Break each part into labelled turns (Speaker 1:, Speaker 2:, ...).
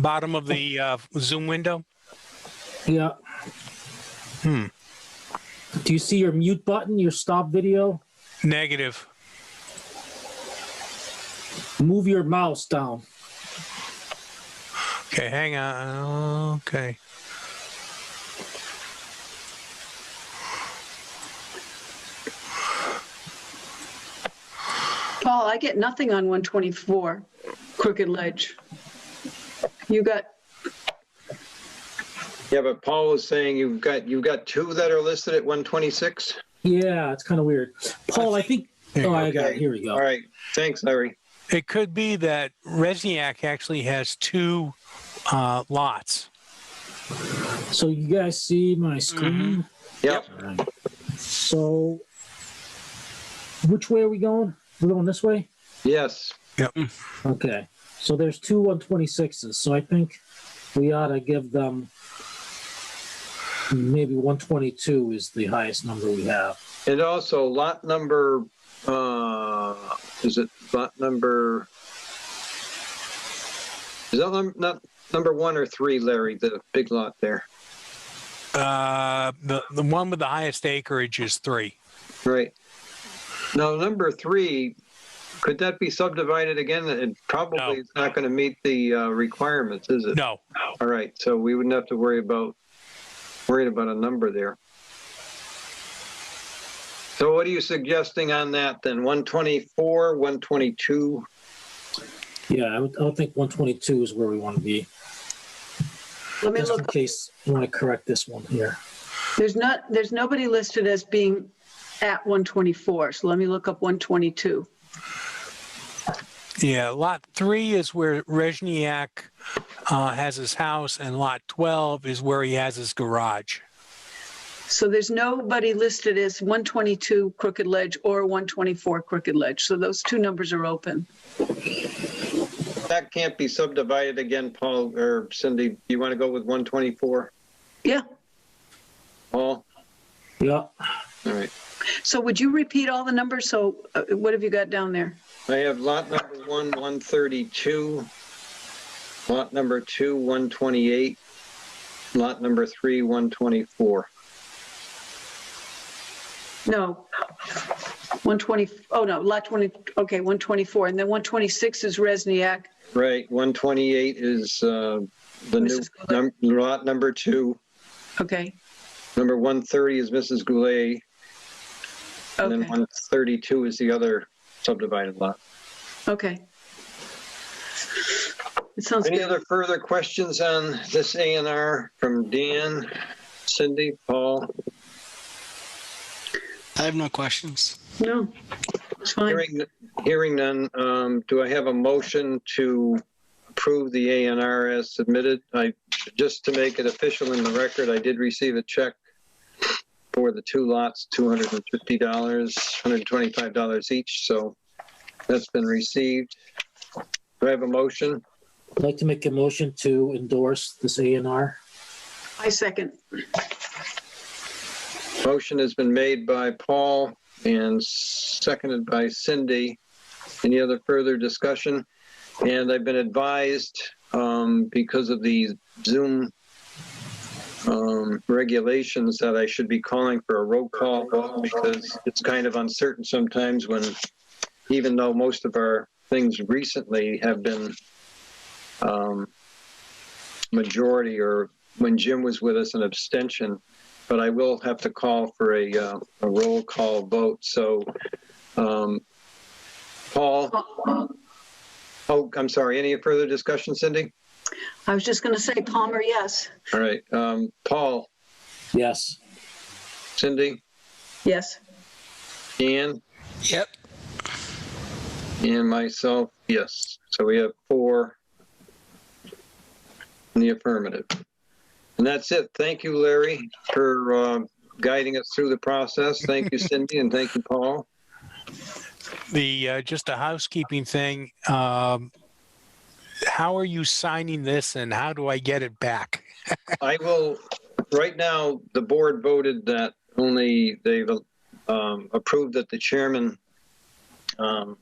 Speaker 1: bottom of the uh, Zoom window?
Speaker 2: Yeah.
Speaker 1: Hmm.
Speaker 2: Do you see your mute button, your stop video?
Speaker 1: Negative.
Speaker 2: Move your mouse down.
Speaker 1: Okay, hang on. Okay.
Speaker 3: Paul, I get nothing on 124 Crooked Ledge. You got,
Speaker 4: Yeah, but Paul was saying you've got, you've got two that are listed at 126?
Speaker 2: Yeah, it's kind of weird. Paul, I think. Oh, I got it.
Speaker 4: okay.
Speaker 2: Here we
Speaker 4: All
Speaker 2: go.
Speaker 4: right, thanks, Larry.
Speaker 1: It could be that Resniak actually has two uh, lots.
Speaker 2: So you guys see my screen?
Speaker 4: Yep,
Speaker 2: So which way are we going? We're going this way?
Speaker 4: yes.
Speaker 2: Okay. So there's two 126s. So I think we ought to give them maybe 122 is the highest number we have.
Speaker 4: And also lot number, uh, is it lot number? Is that num- not number one or three, Larry, the big lot there?
Speaker 1: Uh, the, the one with the highest acreage is three.
Speaker 4: Right. Now, number three, could that be subdivided again? It
Speaker 1: No.
Speaker 4: probably is not going to meet the uh, requirements, is it?
Speaker 1: No.
Speaker 4: All right, so we wouldn't have to worry about, worried about a number there. So what are you suggesting on that then? 124, 122?
Speaker 2: Yeah, I would, I would think 122 is where we want to be.
Speaker 3: let me
Speaker 2: Just in
Speaker 3: look,
Speaker 2: case you want to correct this one here.
Speaker 3: there's not, there's nobody listed as being at 124, so let me look up 122.
Speaker 1: Yeah, lot three is where Resniak uh, has his house, and lot 12 is where he has his garage.
Speaker 3: So there's nobody listed as 122 Crooked Ledge or 124 Crooked Ledge, so those two numbers are open.
Speaker 4: That can't be subdivided again, Paul or Cindy. Do you want to go with 124?
Speaker 3: Yeah,
Speaker 4: Paul?
Speaker 2: Yeah.
Speaker 4: All right.
Speaker 3: so would you repeat all the numbers? So uh, what have you got down there?
Speaker 4: I have lot number one, 132. Lot number two, 128. Lot number three, 124.
Speaker 3: No. 120, oh no, lot 20, okay, 124, and then 126 is Resniak.
Speaker 4: Right, 128 is uh, the new,
Speaker 3: Mrs.
Speaker 4: num- lot number two.
Speaker 3: Okay,
Speaker 4: Number 130 is Mrs. Goulet. And then
Speaker 3: okay,
Speaker 4: 132 is the other subdivided lot.
Speaker 3: okay. It sounds
Speaker 4: Any
Speaker 3: good.
Speaker 4: other further questions on this A and R from Dan, Cindy, Paul?
Speaker 5: I have no questions.
Speaker 3: No, it's fine.
Speaker 4: Hearing, hearing none, um, do I have a motion to approve the A and R as submitted? I, just to make it official in the record, I did receive a check for the two lots, $250, $125 each, so that's been received. Do I have a motion?
Speaker 2: I'd like to make a motion to endorse this A and R.
Speaker 3: I second.
Speaker 4: Motion has been made by Paul and seconded by Cindy. Any other further discussion? And I've been advised, um, because of the Zoom um, regulations, that I should be calling for a roll call vote because it's kind of uncertain sometimes when, even though most of our things recently have been um, majority or when Jim was with us, an abstention, but I will have to call for a, uh, a roll call vote. So, um, Paul, oh, I'm sorry, any further discussion, Cindy?
Speaker 3: I was just going to say Palmer, yes.
Speaker 4: All right, um, Paul,
Speaker 2: Yes.
Speaker 4: Cindy,
Speaker 3: Yes.
Speaker 4: Ian,
Speaker 5: Yep.
Speaker 4: and myself, yes. So we have four in the affirmative. And that's it. Thank you, Larry, for, uh, guiding us through the process. Thank you, Cindy, and thank you, Paul.
Speaker 1: The uh, just a housekeeping thing. Um, how are you signing this, and how do I get it back?
Speaker 4: I will, right now, the board voted that only they've um, approved that the chairman um,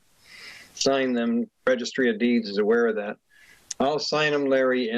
Speaker 4: sign them. Registry of Deeds is aware of that. I'll sign them, Larry,